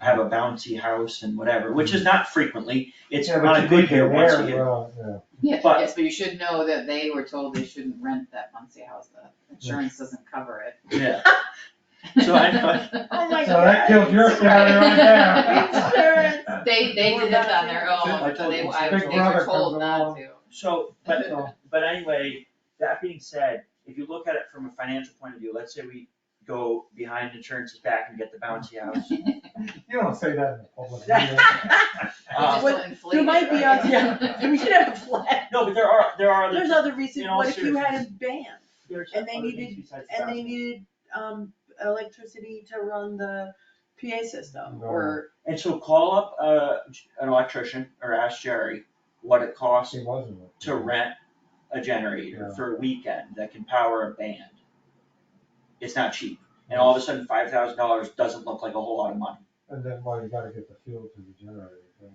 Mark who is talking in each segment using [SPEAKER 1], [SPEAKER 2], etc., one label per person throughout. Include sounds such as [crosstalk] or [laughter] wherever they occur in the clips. [SPEAKER 1] have a bouncy house and whatever, which
[SPEAKER 2] Mm.
[SPEAKER 1] is not frequently, it's
[SPEAKER 3] Yeah, but
[SPEAKER 1] on
[SPEAKER 3] you
[SPEAKER 1] a good
[SPEAKER 3] think you're
[SPEAKER 1] year once a
[SPEAKER 3] aware,
[SPEAKER 1] year.
[SPEAKER 3] well, yeah.
[SPEAKER 4] Yes,
[SPEAKER 1] But-
[SPEAKER 4] yes, but you should know that they were told they shouldn't rent that Muncie house, the insurance doesn't cover it.
[SPEAKER 1] Yeah, So I know-
[SPEAKER 2] Oh my
[SPEAKER 3] So that kills your salary right now.
[SPEAKER 2] Insurance.
[SPEAKER 4] [laughs] They, they did this on their
[SPEAKER 1] I
[SPEAKER 4] own,
[SPEAKER 1] told
[SPEAKER 4] so they,
[SPEAKER 1] you,
[SPEAKER 4] I,
[SPEAKER 3] Big
[SPEAKER 4] they
[SPEAKER 3] Brother
[SPEAKER 4] were told
[SPEAKER 3] comes
[SPEAKER 4] not
[SPEAKER 3] along.
[SPEAKER 4] to.
[SPEAKER 1] so,
[SPEAKER 4] [laughs]
[SPEAKER 1] but,
[SPEAKER 2] [laughs]
[SPEAKER 1] uh,
[SPEAKER 3] So-
[SPEAKER 1] but anyway, that being said, if you look at it from a financial point of view, let's say we go behind insurance's back and get the
[SPEAKER 2] [laughs]
[SPEAKER 1] bouncy house.
[SPEAKER 3] You don't say that in
[SPEAKER 1] [laughs]
[SPEAKER 3] public. meeting.
[SPEAKER 4] They just
[SPEAKER 1] Uh,
[SPEAKER 2] Well,
[SPEAKER 4] don't inflate it,
[SPEAKER 2] might be
[SPEAKER 4] right? [laughs]
[SPEAKER 2] other-
[SPEAKER 3] Yeah.
[SPEAKER 1] [laughs]
[SPEAKER 2] We should have a flag.
[SPEAKER 1] No, but there are, there are
[SPEAKER 2] There's
[SPEAKER 1] other,
[SPEAKER 2] other
[SPEAKER 1] In
[SPEAKER 2] reasons,
[SPEAKER 1] all
[SPEAKER 2] what if you had a band
[SPEAKER 1] there's
[SPEAKER 2] and
[SPEAKER 1] other
[SPEAKER 2] they
[SPEAKER 1] things
[SPEAKER 2] needed-
[SPEAKER 1] besides the
[SPEAKER 2] and they
[SPEAKER 1] bouncy.
[SPEAKER 2] needed, um, electricity to run the PA system or?
[SPEAKER 1] And so call up, uh, an electrician or ask Jerry what it costs
[SPEAKER 3] She wasn't.
[SPEAKER 1] to rent a generator
[SPEAKER 3] Yeah.
[SPEAKER 1] for a weekend that can power a band. It's not cheap, and all of a sudden, five thousand dollars doesn't look like a whole lot of money.
[SPEAKER 3] And then, well, you gotta get the fuel to the generator. so-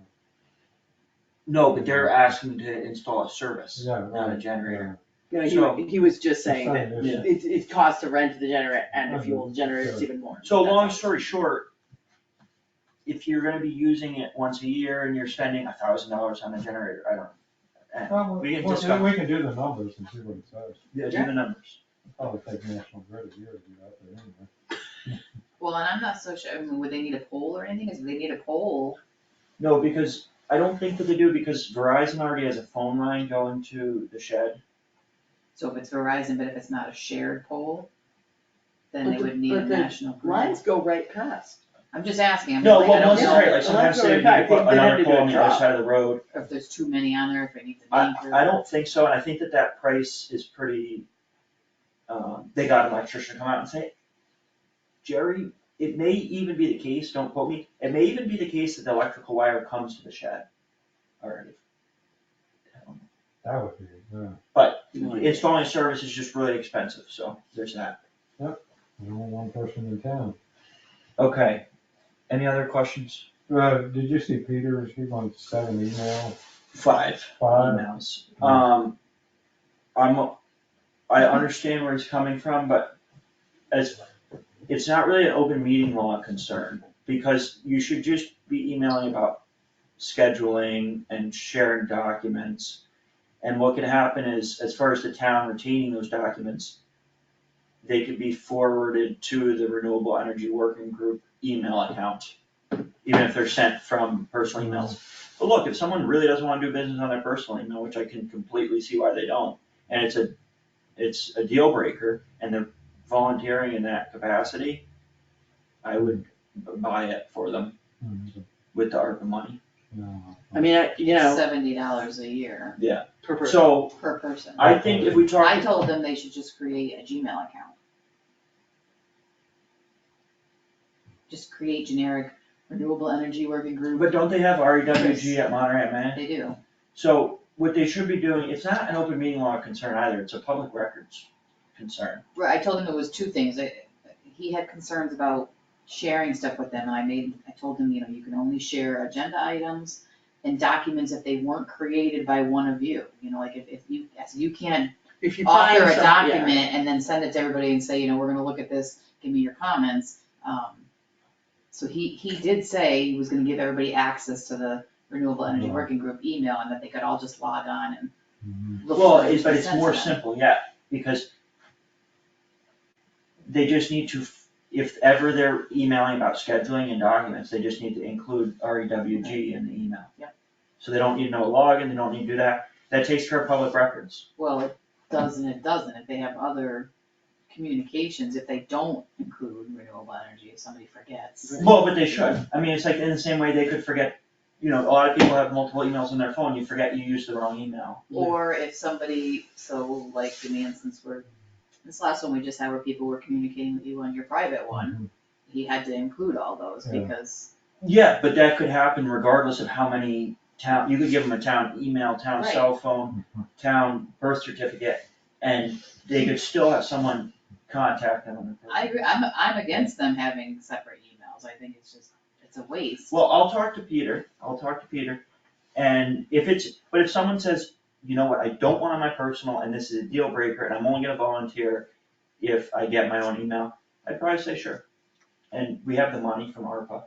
[SPEAKER 1] No, but they're asking to install a service,
[SPEAKER 3] Yeah,
[SPEAKER 1] not a
[SPEAKER 3] right,
[SPEAKER 1] generator.
[SPEAKER 2] You
[SPEAKER 1] So-
[SPEAKER 2] know, he, he was just
[SPEAKER 3] yeah.
[SPEAKER 2] saying that
[SPEAKER 3] Same
[SPEAKER 1] Yeah.
[SPEAKER 3] issue.
[SPEAKER 2] it, it costs to rent the generator and the
[SPEAKER 3] Mhm.
[SPEAKER 2] fuel, the generator's even more.
[SPEAKER 1] So
[SPEAKER 2] That's
[SPEAKER 1] long
[SPEAKER 2] all.
[SPEAKER 1] story short, if you're gonna be using it once a year and you're spending a thousand dollars on a generator, I don't. know. Eh,
[SPEAKER 3] Well,
[SPEAKER 1] We
[SPEAKER 3] we
[SPEAKER 1] can
[SPEAKER 3] well,
[SPEAKER 1] discuss,
[SPEAKER 3] we can do the numbers and see what it says.
[SPEAKER 1] yeah, do the numbers.
[SPEAKER 3] Probably take National Grid a year to do that, but anyway.
[SPEAKER 4] Well, and I'm not so sure, I mean, would they need a pole or anything, cause if they need a pole,
[SPEAKER 1] No, because I don't think that they do, because Verizon already has a phone line going to the shed.
[SPEAKER 4] so if it's Verizon, but if it's not a shared pole, then
[SPEAKER 2] But
[SPEAKER 4] they
[SPEAKER 2] the-
[SPEAKER 4] would need a
[SPEAKER 2] but the
[SPEAKER 4] national grid.
[SPEAKER 2] Lines go right past.
[SPEAKER 4] I'm just asking, I'm
[SPEAKER 1] No,
[SPEAKER 4] just like, I
[SPEAKER 1] well,
[SPEAKER 4] don't
[SPEAKER 1] once,
[SPEAKER 2] it's
[SPEAKER 4] know
[SPEAKER 1] right, like sometimes they,
[SPEAKER 2] Well,
[SPEAKER 1] you
[SPEAKER 2] that's what I
[SPEAKER 1] could put
[SPEAKER 2] think they had
[SPEAKER 1] another
[SPEAKER 2] to do
[SPEAKER 1] pole on
[SPEAKER 2] a
[SPEAKER 1] the other
[SPEAKER 2] drop.
[SPEAKER 1] side of the road,
[SPEAKER 4] if there's too many on there, if it needs a
[SPEAKER 1] I,
[SPEAKER 4] anchor.
[SPEAKER 1] I don't think so, and I think that that price is pretty, um, they got an electrician to come out and say, Jerry, it may even be the case, don't quote me, it may even be the case that the electrical wire comes to the shed already.
[SPEAKER 3] That would be, yeah.
[SPEAKER 1] Installing service is just really expensive, so there's that.
[SPEAKER 3] There's only one person in town.
[SPEAKER 1] Okay, any other questions?
[SPEAKER 3] Uh, did you see Peter's, he wants seven email,
[SPEAKER 1] Five
[SPEAKER 3] five,
[SPEAKER 1] emails. Um, I'm, I understand where he's coming from, but as, it's not really an open meeting law concern, because you should just be emailing about scheduling and sharing documents. And what can happen is, as far as the town retaining those documents, they could be forwarded to the Renewable Energy Working Group email account, even if they're sent from personal emails. But look, if someone really doesn't wanna do business on their personal email, which I can completely see why they don't, and it's a, it's a deal breaker, and they're volunteering in that capacity, I would buy it for them
[SPEAKER 3] Mhm.
[SPEAKER 1] with the ARPA money.
[SPEAKER 3] no.
[SPEAKER 2] I mean, I, you know,
[SPEAKER 4] Seventy dollars a year
[SPEAKER 2] per person.
[SPEAKER 1] So,
[SPEAKER 4] per person.
[SPEAKER 1] I think if we
[SPEAKER 4] I
[SPEAKER 1] talk,
[SPEAKER 4] told them they should just create a Gmail account. Just create generic renewable energy working group.
[SPEAKER 1] but don't they have REWG at Monterey Man?
[SPEAKER 4] They do.
[SPEAKER 1] So, what they should be doing, it's not an open meeting law concern either, it's a public records concern.
[SPEAKER 4] Right, I told him it was two things. I, he had concerns about sharing stuff with them and I made, I told him, you know, you can only share agenda items and documents if they weren't created by one of you. You know, like if, if you, yes, you can't
[SPEAKER 2] If you find
[SPEAKER 4] author a
[SPEAKER 2] something, yeah.
[SPEAKER 4] document and then send it to everybody and say, you know, we're gonna look at this, give me your comments. Um, So he, he did say he was gonna give everybody access to the Renewable Energy
[SPEAKER 3] Mhm.
[SPEAKER 4] Working Group email and that they could all just log on and
[SPEAKER 3] Mhm.
[SPEAKER 4] look.
[SPEAKER 1] Well,
[SPEAKER 4] for it
[SPEAKER 1] it's, but
[SPEAKER 4] and
[SPEAKER 1] it's
[SPEAKER 4] send to
[SPEAKER 1] more
[SPEAKER 4] them.
[SPEAKER 1] simple, yeah, because they just need to, f- if ever they're emailing about scheduling and documents, they just need to include REWG in the email.
[SPEAKER 4] Yep.
[SPEAKER 1] So they don't need no login, they don't need to do that, that takes care of public records.
[SPEAKER 4] Well, it does and it doesn't, if they have other communications, if they don't include renewable energy, if somebody forgets.
[SPEAKER 2] Right.
[SPEAKER 1] Well, but they should, I mean, it's like in the same way they could forget, you know, a lot of people have multiple emails on their phone, you forget you used the wrong email.
[SPEAKER 4] Or if somebody, so like in the instance where, this last one we just had where people were communicating with you on your private one, he had to include all those
[SPEAKER 3] Yeah.
[SPEAKER 4] because,
[SPEAKER 1] Yeah, but that could happen regardless of how many town, you could give them a town email, town
[SPEAKER 4] Right.
[SPEAKER 1] cell phone,
[SPEAKER 3] Mm-hmm.
[SPEAKER 1] town birth certificate, and they could still have someone contact them. on the-
[SPEAKER 4] I agree, I'm, I'm against them having separate emails, I think it's just, it's a waste.
[SPEAKER 1] Well, I'll talk to Peter, I'll talk to Peter, and if it's, but if someone says, you know what, I don't want on my personal, and this is a deal breaker, and I'm only gonna volunteer if I get my own email, I'd probably say sure. And we have the money from ARPA,